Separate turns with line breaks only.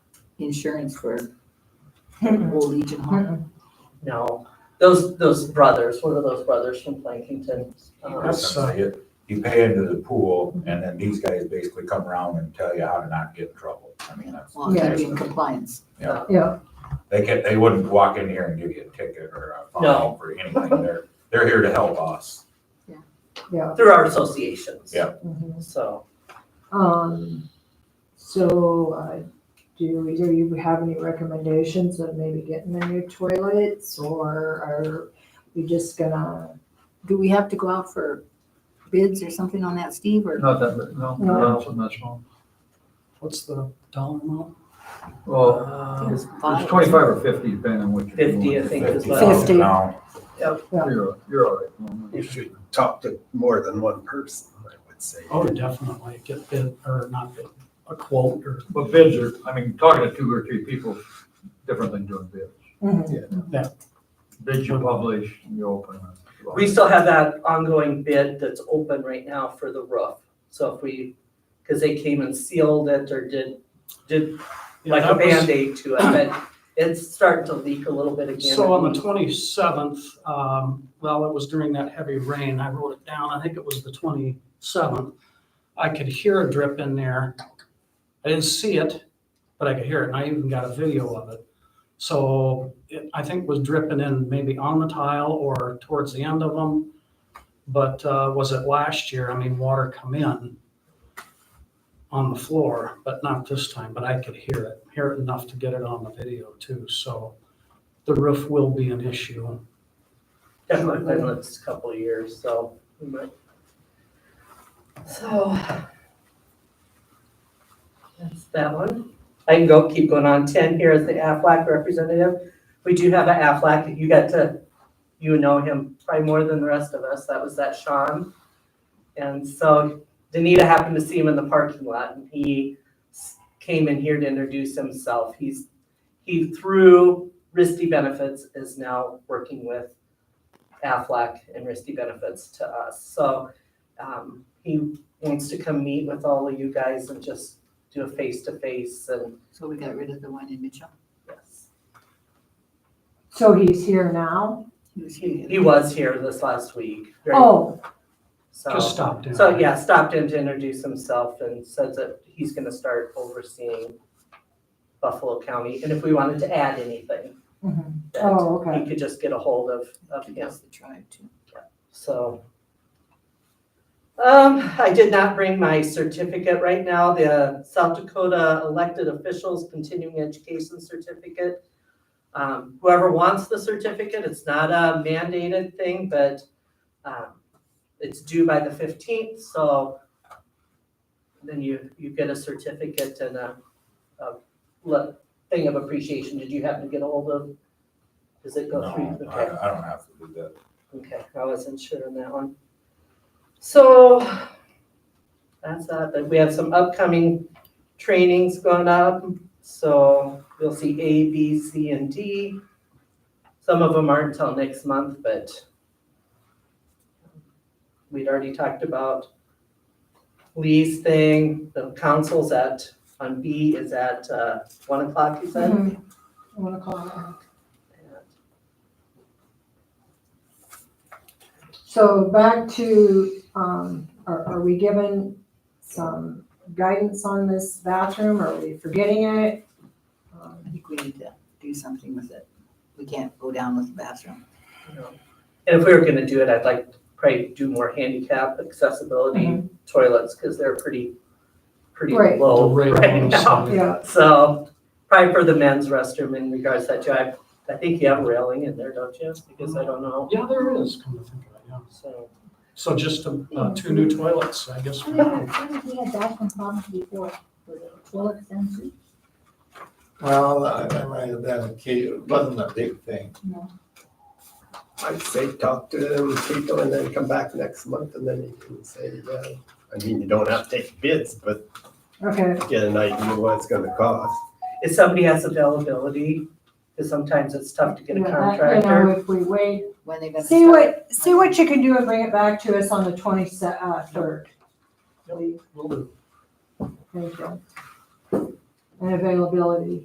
insurance for old Legion Hall?
No, those, those brothers, what are those brothers from Plankington? Um,
That's, uh,
You you pay into the pool and then these guys basically come around and tell you how to not get in trouble. I mean, that's.
Well, gotta be in compliance.
Yeah,
They can, they wouldn't walk in here and give you a ticket or a fine
No.
for anything. They're, they're here to help us.
yeah.
Through our associations.
Yeah.
So,
Um, so, uh, do either you have any recommendations of maybe getting the new toilets or are we just gonna?
Do we have to go out for bids or something on that, Steve, or
Not that, big, no,
No.
not so much, no.
what's the,
dollar amount?
Well,
It's
Uh, it's twenty-five or fifty, depending on what you're doing.
50, I think is what.
$50
Fifty.
now.
You're, you're all right. Norman.
You should talk to more than one person, I would say.
oh, definitely get bid, or not bid, a quote or,
But bids are, I mean, talking to two or three people, is different than doing bids.
Yeah.
Bids you publish, you open. it.
we still have that ongoing bid that's open right now for the roof. So if we, because they came and sealed it or did, did
Yeah,
like a
that was-
Band-Aid to it, but it's starting to leak a little bit again.
So on the twenty-seventh, um, well, it was during that heavy rain, I wrote it down, I think it was the twenty-seventh. I could hear a drip in there. I didn't see it, but I could hear it, and I even got a video of it. So it, I think was dripping in maybe on the tile or towards the end of them. But, uh, was it last year? I mean, water come in on the floor, but not this time, but I could hear it, hear it enough to get it on the video too, so the roof will be an issue.
Definitely been the next couple of years, so. we might- So. That's that one. I can go, keep going on. Ten here is the Aflac representative. We do have an Aflac. You got to, you know him probably more than the rest of us. That was that Sean. And so Danita happened to see him in the parking lot and he s- came in here to introduce himself. He's, he through Risty Benefits is now working with Aflac and Risty Benefits to us. So um, he wants to come meet with all of you guys and just do a face-to-face and
So we got rid of the one in Mitchell?
yes.
So he's here now?
He was
He
here.
he was here this last week. right?
Oh,
Just
So,
stop down.
Oh. so yeah, stopped in to introduce himself and says that he's gonna start overseeing Buffalo County. And if we wanted to add anything,
mhm.
that
oh,
he
okay.
could just get a hold of, of him.
the tribe too.
So. Um, I did not bring my certificate right now, the South Dakota Elected Officials Continuing Education Certificate. Um, whoever wants the certificate, it's not a mandated thing, but, um, it's due by the fifteenth, so then you, you get a certificate and a, a le- thing of appreciation. Did you happen to get a hold of? Does it go through?
No,
Okay.
I, I don't have to do that.
Okay, I wasn't sure on that one. So that's that, but we have some upcoming trainings going up. So you'll see A, B, C, and D. Some of them aren't until next month, but we'd already talked about Lee's thing, the council's at, on B is at uh, one o'clock, you said?
Mhm. One o'clock. So back to, um, are, are we given some guidance on this bathroom? Are we forgetting it? Um,
I think we need to do something with it. We can't go down with the bathroom.
And if we were gonna do it, I'd like to probably do more handicap accessibility toilets, because they're pretty, pretty
Mm-hmm. Right.
low
Right
right
on the
now.
side.
Yeah,
So, probably for the men's restroom in regards to that, too. I, I think you have railing in there, don't you? Because I don't know,
Yeah, there is, come to think of it, yeah.
so.
So just um, uh, two new toilets, I guess. for now.
We had bathroom problems before, with the toilets and
Well, I, I might have been a kid, it wasn't a big thing.
No.
I'd say talk to them, people, and then come back next month, and then you can say, yeah. I mean, you don't have to take bids, but
okay.
get an idea what it's gonna cost.
If somebody has availability, because sometimes it's tough to get a
Yeah, that, You
contractor.
know, if we wait,
When they gonna
see
start?
what, see what you can do and bring it back to us on the twenty-third. uh, third.
Will do.
Thank you. And availability.